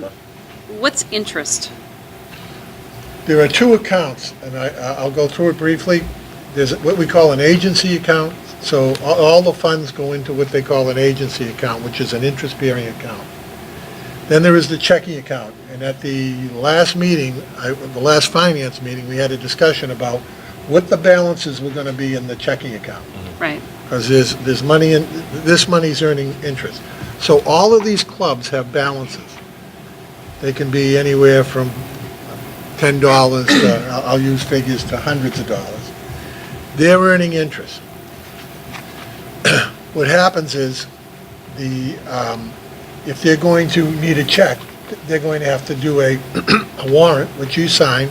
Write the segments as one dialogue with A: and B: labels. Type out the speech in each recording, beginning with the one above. A: number.
B: What's interest?
C: There are two accounts, and I, I- I'll go through it briefly. There's what we call an agency account, so all, all the funds go into what they call an agency account, which is an interest-bearing account. Then there is the checking account, and at the last meeting, I, the last finance meeting, we had a discussion about what the balances were gonna be in the checking account.
B: Right.
C: Because there's, there's money in, this money's earning interest. So all of these clubs have balances. They can be anywhere from ten dollars to, I'll, I'll use figures, to hundreds of dollars. They're earning interest. What happens is, the, um, if they're going to need a check, they're going to have to do a, a warrant, which you sign.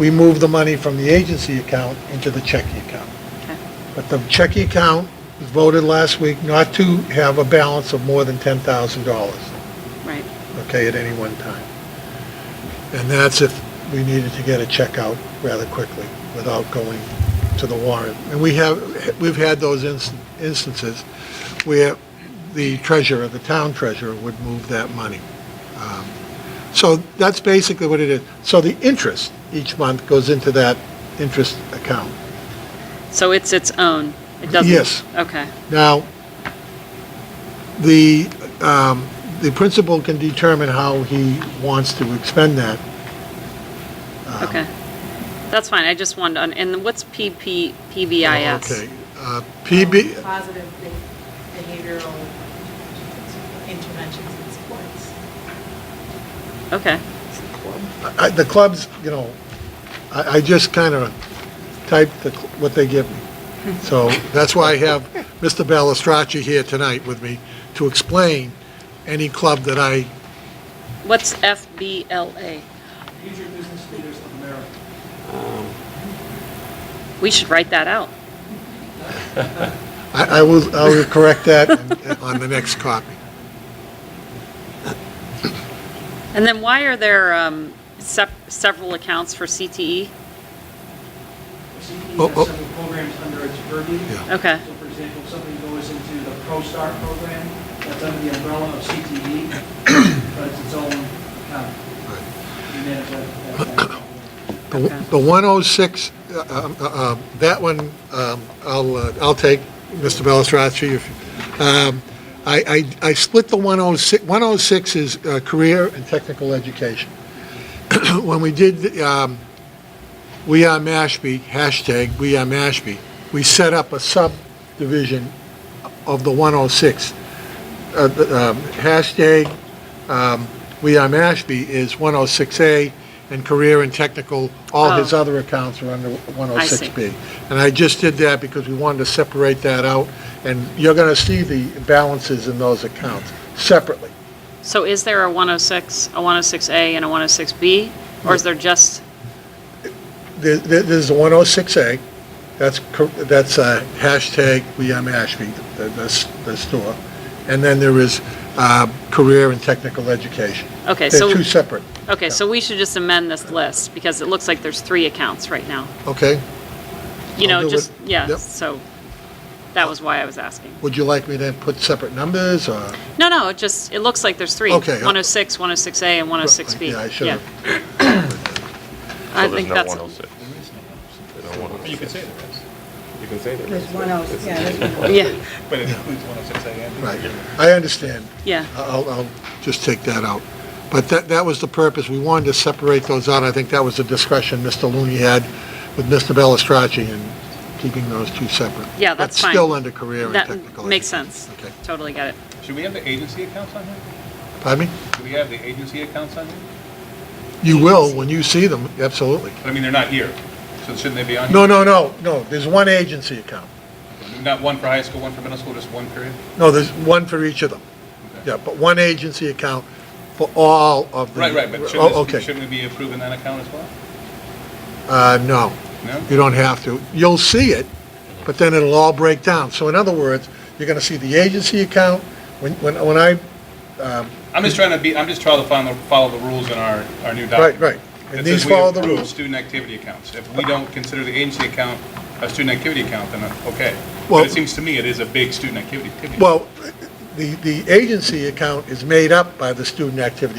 C: We move the money from the agency account into the checking account. But the checking account was voted last week not to have a balance of more than ten thousand dollars,
B: Right.
C: okay, at any one time. And that's if we needed to get a check out rather quickly without going to the warrant. And we have, we've had those inst- instances where the treasurer, the town treasurer, would move that money. Um, So that's basically what it is. So the interest each month goes into that interest account.
B: So it's its own? It doesn't?
C: Yes.
B: Okay.
C: Now, the, um, the principal can determine how he wants to expend that. Um,
B: Okay. That's fine. I just wanted, to- and what's PP, PBIS?
C: Okay, uh, PB,
D: Positive behavioral interventions and supports.
B: Okay.
C: I- the clubs, you know, I, I just kind of typed the, cl- what they give me. So that's why I have Mr. Balistraci here tonight with me to explain any club that I,
B: What's FBLA?
E: Future Business Leaders of America.
B: We should write that out.
C: I I will, I will correct that on the next copy.
B: And then why are there um, sep- several accounts for E? CTE?
E: The CTE
C: Oh, oh.
E: has several programs under its purview.
C: Yeah.
B: Okay.
E: So for example, if something goes into the ProStar program, that's under the umbrella of CTE, but it's its own account. We manage that- that- that.
C: The the 106, uh, um, uh, uh, that one, um, I'll, uh, I'll take, Mr. Bellistraci. if- um, I, I I split the 106, 106 is uh, career and technical education. When we did, the, um, We Are Mashpee, hashtag We Are Mashpee, we set up a subdivision of the 106. Uh, the, um, Hashtag um, We Are Mashpee is 106A, and Career and Technical, all his
B: Oh.
C: other accounts are under 106B.
B: see.
C: And I just did that because we wanted to separate that out, and you're going to see the balances in those accounts separately.
B: So is there a 106, a 106A, and a 106B? Or is there just,
C: There- there- There's the 106A, that's, cor- that's uh, hashtag We Are Mashpee, the- the the store. And then there is uh, Career and Technical Education.
B: okay, so.
C: They're two separate,
B: Okay, so we should just amend this list, because it looks like there's three accounts right now.
C: okay?
B: You
C: I'll do
B: know,
C: it.
B: just, yeah,
C: Yep.
B: so, that was why I was asking.
C: Would you like me to put separate numbers, or?
B: No, no, it just, it looks like there's three.
C: Okay, I'll-
B: 106, 106A, and 106B.
C: Yeah, I should have.
B: I think that's,
A: So there's oh no 106.
F: You can say the rest,
A: You can say there
G: There's
A: is.
G: one oh, yeah, there's
B: yeah,
F: but it includes 106 AM.
C: Right, I understand.
B: yeah,
C: I'll, I'll just take that out. But that, that was the purpose, we wanted to separate those out, I think that was the discussion Mr. Looney had with Mr. Bellistraci and keeping those two separate.
B: Yeah, that's
C: But
B: fine.
C: still under career and
B: that
C: technical.
B: makes
C: education.
B: sense.
C: Okay,
B: Totally get it.
F: Should we have the agency accounts on here?
C: pardon me?
F: Do we have the agency accounts on here?
C: You will, when you see them, absolutely.
F: But I mean, they're not here, so shouldn't they be on?
C: No,
F: here?
C: no, no, no, there's one agency account.
F: Not one for high school, one for middle school, just one period?
C: No, there's one for each of them.
F: Okay.
C: Yeah, but one agency account for all of the.
F: Right, right, but
C: Oh,
F: shouldn't, this-
C: Okay,
F: shouldn't we be approving that account as well?
C: uh, no.
F: No?
C: You don't have to. You'll see it, but then it'll all break down. So in other words, you're gonna see the agency account, when, when, when I,
F: I'm just trying to be, I'm just trying to follow, follow the rules in our, our new
C: right,
F: document.
C: right. And
F: It
C: these
F: says we
C: follow the
F: approve
C: rules.
F: Student activity accounts. If we don't consider the agency account a student activity account, then uh, okay.
C: Well-
F: But it seems to me it is a big student activity. activity.
C: Well, the, the agency account is made up by the student activity